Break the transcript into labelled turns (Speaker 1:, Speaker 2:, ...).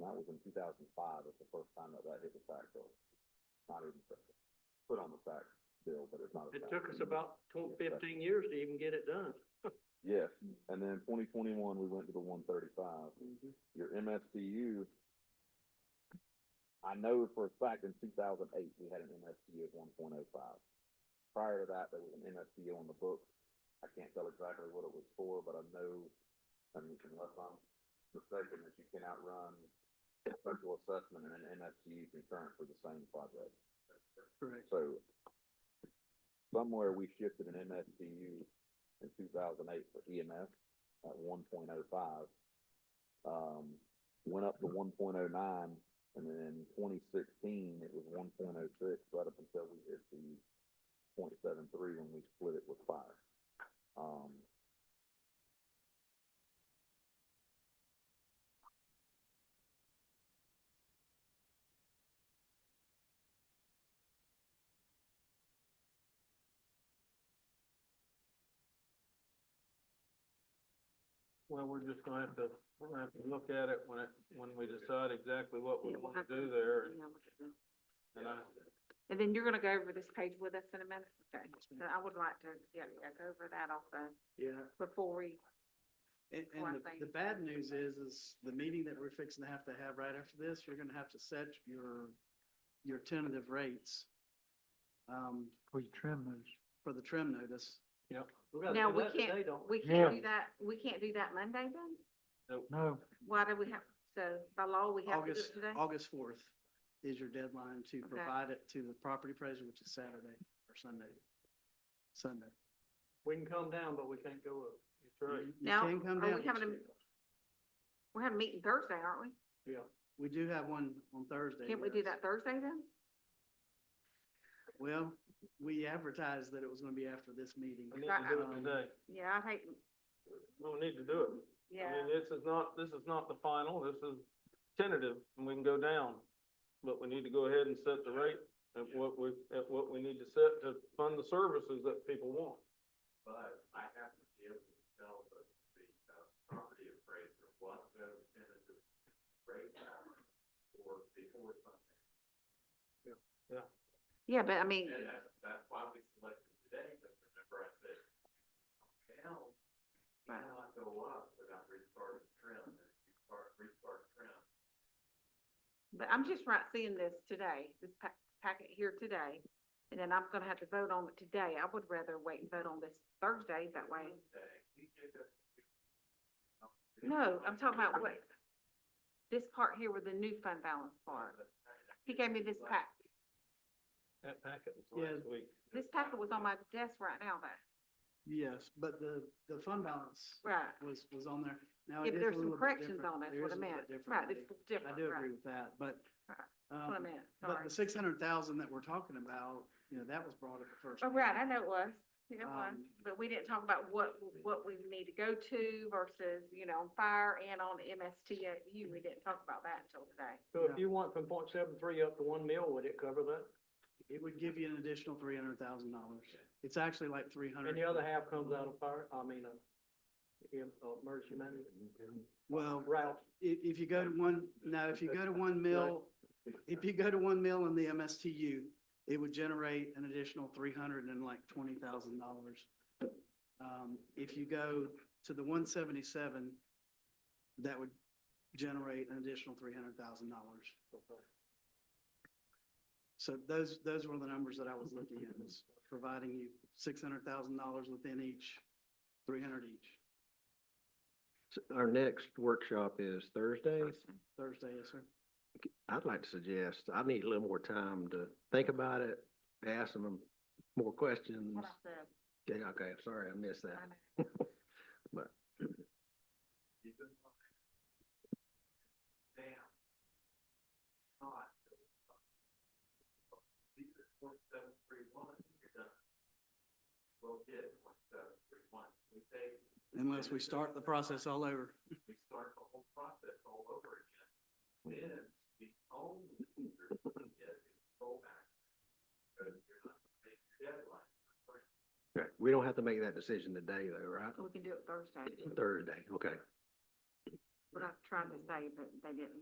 Speaker 1: that was in two thousand five, was the first time that that hit the tax bill. Not even put- put on the tax bill, but it's not. a
Speaker 2: It
Speaker 1: tax.
Speaker 2: took us about tw- fifteen years to even get it done.
Speaker 1: Yes, and then twenty twenty-one, we went to the one thirty-five. Your MSTU, I know for a fact in two thousand eight, we had an MSTU of one point oh five. Prior to that, there was an MSTU on the books. I can't tell exactly what it was for, but I know, I mean, unless I'm mistaken, that you can outrun special assessment and an MSTU concurrent for the same project.
Speaker 2: Correct.
Speaker 1: So somewhere we shifted an MSTU in two thousand eight for EMS at one point oh five. Um, went up to one point oh nine and then in twenty sixteen, it was one point oh six right up until we hit the point seven three when we split it with fire. Um,
Speaker 2: Well, we're just gonna have to, we're gonna have to look at it when it, when we decide exactly what we wanna do there. and- And I,
Speaker 3: And then you're gonna go over this page with us in a minute, okay?
Speaker 2: Mm-hmm.
Speaker 3: So I would like to, yeah, yeah, go over that also
Speaker 4: Yeah,
Speaker 3: before we,
Speaker 4: and,
Speaker 3: One
Speaker 4: and
Speaker 3: thing.
Speaker 4: the, the bad news is, is the meeting that we're fixing to have to have right after this, you're gonna have to set your, your tentative rates. Um,
Speaker 5: We trim those.
Speaker 4: for the trim notice.
Speaker 2: yep.
Speaker 3: Now, we can't-
Speaker 2: don't
Speaker 3: we
Speaker 5: Yeah.
Speaker 3: can't do that, we can't do that Monday then?
Speaker 5: No,
Speaker 3: Why do we have, so by law, we have to do
Speaker 4: August,
Speaker 3: it today?
Speaker 4: August fourth is your deadline to
Speaker 3: Okay.
Speaker 4: provide it to the property appraiser, which is Saturday or Sunday. Sunday.
Speaker 2: We can come down, but we can't go up. That's right.
Speaker 4: You- you
Speaker 3: Now,
Speaker 4: can come
Speaker 3: are we
Speaker 4: down.
Speaker 3: having a- We're having a meeting Thursday, aren't we?
Speaker 2: Yeah.
Speaker 4: We do have one on Thursday.
Speaker 3: Can't we do
Speaker 4: yes.
Speaker 3: that Thursday then?
Speaker 4: Well, we advertised that it was gonna be after this meeting. Um,
Speaker 2: We need to do it today.
Speaker 3: Yeah, I hate,
Speaker 2: We need to do it. I
Speaker 3: yeah,
Speaker 2: mean, this is not, this is not the final, this is tentative, and we can go down. But we need to go ahead and set the rate at what we, at what we need to set to fund the services that people want.
Speaker 6: But I have to be able to tell the, the uh, property appraiser what the tentative rate for before Sunday.
Speaker 3: yeah, but I mean,
Speaker 6: And that's, that's why we selected today, because remember I said, now, you
Speaker 3: Right.
Speaker 6: cannot go up without restarting trim, and if you start, restart trim.
Speaker 3: but I'm just right seeing this today, this pa- packet here today. And then I'm gonna have to vote on it today. I would rather wait and vote on this Thursday, that way.
Speaker 6: Wednesday, we did this.
Speaker 3: No, I'm talking about what, this part here with the new fund balance part. He gave me this pack.
Speaker 2: That packet was last week.
Speaker 3: This packet was on my desk right now, though.
Speaker 4: Yes, but the, the fund balance
Speaker 3: Right.
Speaker 4: was, was on there. Now,
Speaker 3: If
Speaker 4: it Oh, is a
Speaker 3: there's some
Speaker 4: little bit
Speaker 3: corrections
Speaker 4: different.
Speaker 3: on it,
Speaker 4: There
Speaker 3: what I
Speaker 4: is a little
Speaker 3: meant.
Speaker 4: bit different.
Speaker 3: Right, it's different,
Speaker 4: I do
Speaker 3: right.
Speaker 4: agree with that, but,
Speaker 3: Right. What I
Speaker 4: um,
Speaker 3: meant,
Speaker 4: but
Speaker 3: sorry.
Speaker 4: the six hundred thousand that we're talking about, you know, that was brought up at first.
Speaker 3: Oh, right, I know it was. It was.
Speaker 4: Um,
Speaker 3: But we didn't talk about what, what we need to go to versus, you know, on fire and on MSTU. We didn't talk about that until today.
Speaker 2: So if you want from point seven three up to one mil, would it cover that?
Speaker 4: It would give you an additional three hundred thousand dollars. It's actually like three hundred.
Speaker 2: And the other half comes out of fire, I mean, uh, em- uh, emergency management.
Speaker 4: Well,
Speaker 2: Route,
Speaker 4: if, if you go to one, no, if you go to one mill, if you go to one mill in the MSTU, it would generate an additional three hundred and like twenty thousand dollars. Um, if you go to the one seventy-seven, that would generate an additional three hundred thousand dollars. So those, those were the numbers that I was looking at, was providing you six hundred thousand dollars within each, three hundred each.
Speaker 7: Our next workshop is Thursday.
Speaker 4: Thursday, yes, sir.
Speaker 7: I'd like to suggest, I need a little more time to think about it, ask them more questions.
Speaker 3: What I said.
Speaker 7: Yeah, okay, I'm sorry, I missed that.
Speaker 3: I know.
Speaker 6: Damn. Not. These are point seven three one, you're done. We'll get point seven three one, we say,
Speaker 4: Unless we start the process all over.
Speaker 6: we start the whole process all over again. Then the only thing you're gonna get is rollback. Because you're not gonna make your deadline.
Speaker 7: Okay, We don't have to make that decision today though, right?
Speaker 3: We can do it Thursday.
Speaker 7: Thursday, okay.
Speaker 3: What I tried to say, but they didn't.